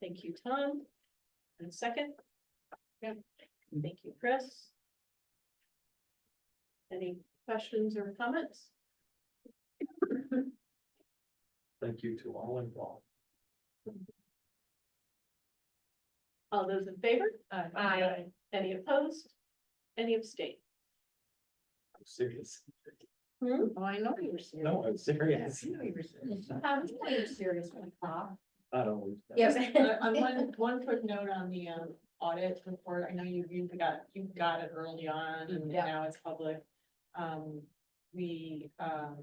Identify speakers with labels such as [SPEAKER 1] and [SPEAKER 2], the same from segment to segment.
[SPEAKER 1] Thank you, Tom. And second? Good. Thank you, Chris. Any questions or comments?
[SPEAKER 2] Thank you to all involved.
[SPEAKER 1] All those in favor?
[SPEAKER 3] Aye.
[SPEAKER 1] Any opposed? Any abstain?
[SPEAKER 2] I'm serious.
[SPEAKER 3] Oh, I know you were serious.
[SPEAKER 2] No, I'm serious.
[SPEAKER 3] I know you were serious.
[SPEAKER 1] Um,
[SPEAKER 3] you're serious when you talk.
[SPEAKER 2] I don't.
[SPEAKER 3] Yes.
[SPEAKER 4] Uh, On one, one quick note on the um audit report, I know you, you got, you got it early on and
[SPEAKER 3] Yeah.
[SPEAKER 4] now it's public. Um, we, um.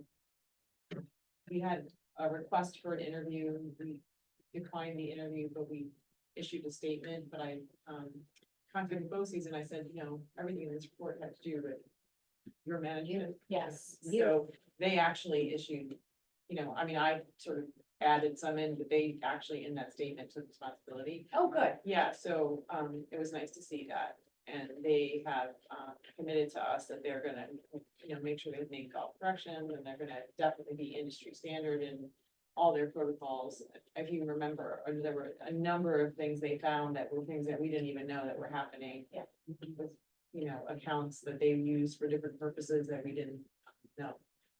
[SPEAKER 4] We had a request for an interview, we declined the interview, but we issued a statement, but I, um. Contacted BOCES and I said, you know, everything in this report had to do with your management.
[SPEAKER 3] Yes.
[SPEAKER 4] So they actually issued, you know, I mean, I sort of added some in, but they actually in that statement took responsibility.
[SPEAKER 3] Oh, good.
[SPEAKER 4] Yeah, so um it was nice to see that. And they have um committed to us that they're gonna, you know, make sure they make all corrections and they're gonna definitely be industry standard in all their protocols. If you remember, uh, there were a number of things they found that were things that we didn't even know that were happening.
[SPEAKER 3] Yeah.
[SPEAKER 4] With, you know, accounts that they used for different purposes that we didn't know.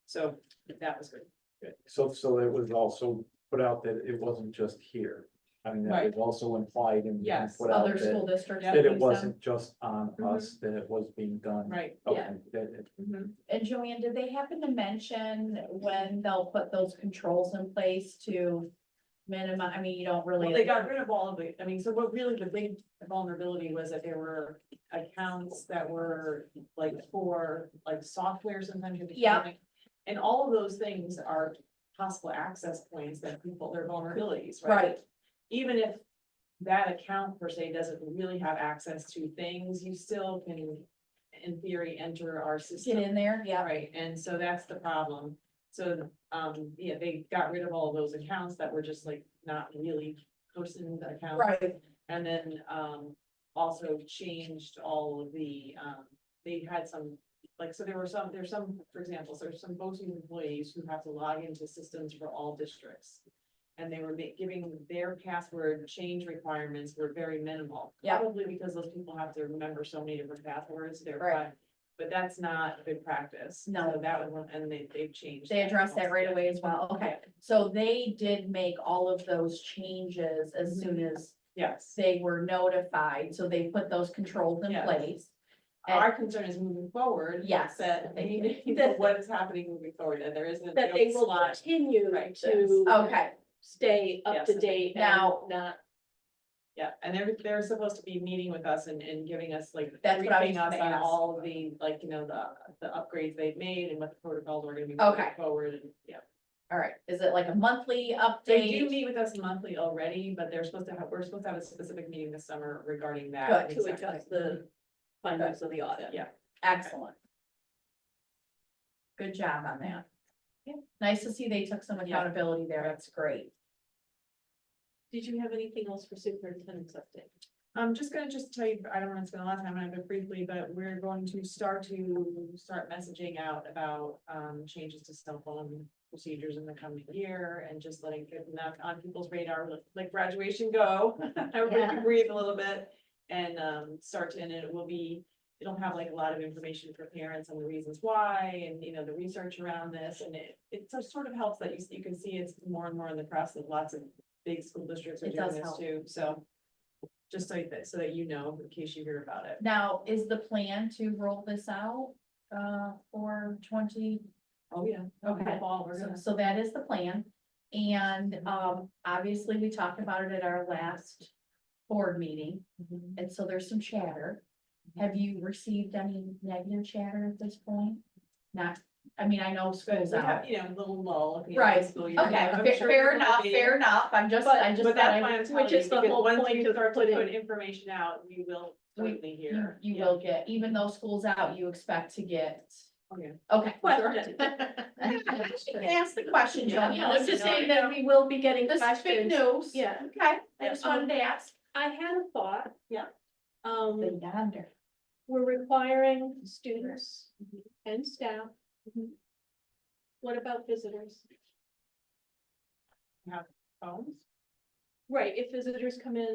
[SPEAKER 4] So that was good.
[SPEAKER 2] So, so it was also put out that it wasn't just here. I mean, that was also implied and.
[SPEAKER 4] Yes,
[SPEAKER 2] Put out
[SPEAKER 3] Other
[SPEAKER 2] that,
[SPEAKER 3] school districts.
[SPEAKER 2] that
[SPEAKER 3] use
[SPEAKER 2] it
[SPEAKER 3] them.
[SPEAKER 2] wasn't just on us, that it was being done.
[SPEAKER 4] Right.
[SPEAKER 2] Okay,
[SPEAKER 3] Mm-hmm. yeah.
[SPEAKER 2] that it-
[SPEAKER 3] And Joanne, did they happen to mention when they'll put those controls in place to minimize, I mean, you don't really.
[SPEAKER 4] Well, they got rid of all of it. I mean, so what really the big vulnerability was that there were accounts that were like for, like software sometimes. you have to
[SPEAKER 3] Yeah.
[SPEAKER 4] connect. And all of those things are possible access points that people, their vulnerabilities, right?
[SPEAKER 3] Right.
[SPEAKER 4] Even if that account per se doesn't really have access to things, you still can, in theory, enter our
[SPEAKER 3] Get
[SPEAKER 4] system.
[SPEAKER 3] in there, yeah.
[SPEAKER 4] Right, and so that's the problem. So, um, yeah, they got rid of all those accounts that were just like not really person accounts.
[SPEAKER 3] Right,
[SPEAKER 4] And then, um, also changed all of the, um, they had some, like, so there were some, there's some, for example, so there's some voting employees who have to log into systems for all districts. And they were ma- giving their password change requirements were very minimal.
[SPEAKER 3] Yeah.
[SPEAKER 4] Probably because those people have to remember so many different passwords, they're,
[SPEAKER 3] Right.
[SPEAKER 4] but, but that's not good practice.
[SPEAKER 3] No.
[SPEAKER 4] So That was one, and they, they've changed.
[SPEAKER 3] they addressed that right
[SPEAKER 4] also.
[SPEAKER 3] away as well, okay. So they did make all of those changes as soon as
[SPEAKER 4] Mm-hmm. Yes.
[SPEAKER 3] they were notified, so they put those controls in
[SPEAKER 4] Yes.
[SPEAKER 3] place. And-
[SPEAKER 4] Our concern is moving forward.
[SPEAKER 3] Yes.
[SPEAKER 4] That they need to know
[SPEAKER 1] That-
[SPEAKER 4] what is happening moving forward, and there isn't.
[SPEAKER 1] That they will
[SPEAKER 4] slot.
[SPEAKER 1] continue
[SPEAKER 4] Right,
[SPEAKER 1] to
[SPEAKER 3] Okay,
[SPEAKER 1] stay up to
[SPEAKER 4] Yes.
[SPEAKER 1] date and
[SPEAKER 3] Now-
[SPEAKER 1] not,
[SPEAKER 4] Yeah, and they're, they're supposed to be meeting with us and, and giving us like.
[SPEAKER 3] That's what I was
[SPEAKER 4] briefing us
[SPEAKER 3] gonna
[SPEAKER 4] on
[SPEAKER 3] ask.
[SPEAKER 4] All of the, like, you know, the, the upgrades they've made and what the protocols are gonna be.
[SPEAKER 3] Okay.
[SPEAKER 4] moving Forward and, yeah.
[SPEAKER 3] all right, is it like a monthly update?
[SPEAKER 4] They do meet with us monthly already, but they're supposed to have, we're supposed to have a specific meeting this summer regarding that.
[SPEAKER 3] Good.
[SPEAKER 1] to
[SPEAKER 4] exactly.
[SPEAKER 1] adjust
[SPEAKER 3] Mm-hmm.
[SPEAKER 1] the findings of the audit.
[SPEAKER 4] Yeah.
[SPEAKER 3] Excellent. Good job on that.
[SPEAKER 1] Yeah.
[SPEAKER 3] Nice to see they took some
[SPEAKER 4] Yeah.
[SPEAKER 3] accountability there, that's great.
[SPEAKER 1] Did you have anything else for superintendent's update?
[SPEAKER 4] I'm just gonna just tell you, I don't wanna spend a lot of time on it but briefly, but we're going to start to start messaging out about um changes to cell phone procedures in the coming year and just letting get enough on people's radar, let- let graduation go. Everybody can breathe a little bit and um start to, and it will be, it'll have like a lot of information for parents on the reasons why and, you know, the research around this. And it it so- sort of helps that you you can see it's more and more in the press that lots of big school districts are
[SPEAKER 3] It
[SPEAKER 4] doing
[SPEAKER 3] does
[SPEAKER 4] this
[SPEAKER 3] help.
[SPEAKER 4] too, so just so that, so that you know, in case you hear about it.
[SPEAKER 3] Now, is the plan to roll this out uh for twenty?
[SPEAKER 4] Oh, yeah.
[SPEAKER 3] Okay.
[SPEAKER 4] Fall, we're
[SPEAKER 3] So-
[SPEAKER 4] gonna,
[SPEAKER 3] So that is the plan. And um obviously, we talked about it at our last board meeting, and so there's some chatter. Have you received any negative chatter at this point? Not, I mean, I know
[SPEAKER 4] but
[SPEAKER 3] school's
[SPEAKER 4] we have,
[SPEAKER 3] out.
[SPEAKER 4] you know, a little lull. at the end of
[SPEAKER 3] Right,
[SPEAKER 4] the school year.
[SPEAKER 3] Okay,
[SPEAKER 4] I'm
[SPEAKER 3] fair-
[SPEAKER 4] sure
[SPEAKER 3] fair
[SPEAKER 4] there will
[SPEAKER 3] enough,
[SPEAKER 4] be.
[SPEAKER 3] fair enough. I'm just, I just.
[SPEAKER 4] But
[SPEAKER 3] thought
[SPEAKER 4] that's
[SPEAKER 3] I-
[SPEAKER 4] why I'm telling
[SPEAKER 1] Which
[SPEAKER 4] you,
[SPEAKER 1] is the
[SPEAKER 4] because
[SPEAKER 1] whole
[SPEAKER 4] once
[SPEAKER 1] point
[SPEAKER 4] you
[SPEAKER 1] of
[SPEAKER 4] start to
[SPEAKER 1] putting-
[SPEAKER 4] Put information out, you will
[SPEAKER 3] We-
[SPEAKER 4] certainly
[SPEAKER 3] You,
[SPEAKER 4] hear.
[SPEAKER 3] you
[SPEAKER 4] Yeah.
[SPEAKER 3] will get, even though school's out, you expect to get,
[SPEAKER 4] Oh, yeah.
[SPEAKER 3] okay.
[SPEAKER 1] Question.
[SPEAKER 3] You can Ask the question,
[SPEAKER 1] Yeah,
[SPEAKER 3] Joanne.
[SPEAKER 1] I'm just saying that we will be getting
[SPEAKER 3] This is big
[SPEAKER 1] questions.
[SPEAKER 3] news.
[SPEAKER 1] Yeah,
[SPEAKER 3] Okay, I
[SPEAKER 1] Yeah,
[SPEAKER 3] just wanted to ask.
[SPEAKER 1] I had a thought.
[SPEAKER 4] Yeah.
[SPEAKER 1] Um,
[SPEAKER 3] yonder.
[SPEAKER 1] we're requiring students and staff. What about visitors?
[SPEAKER 4] Phones?
[SPEAKER 1] Right, if visitors come in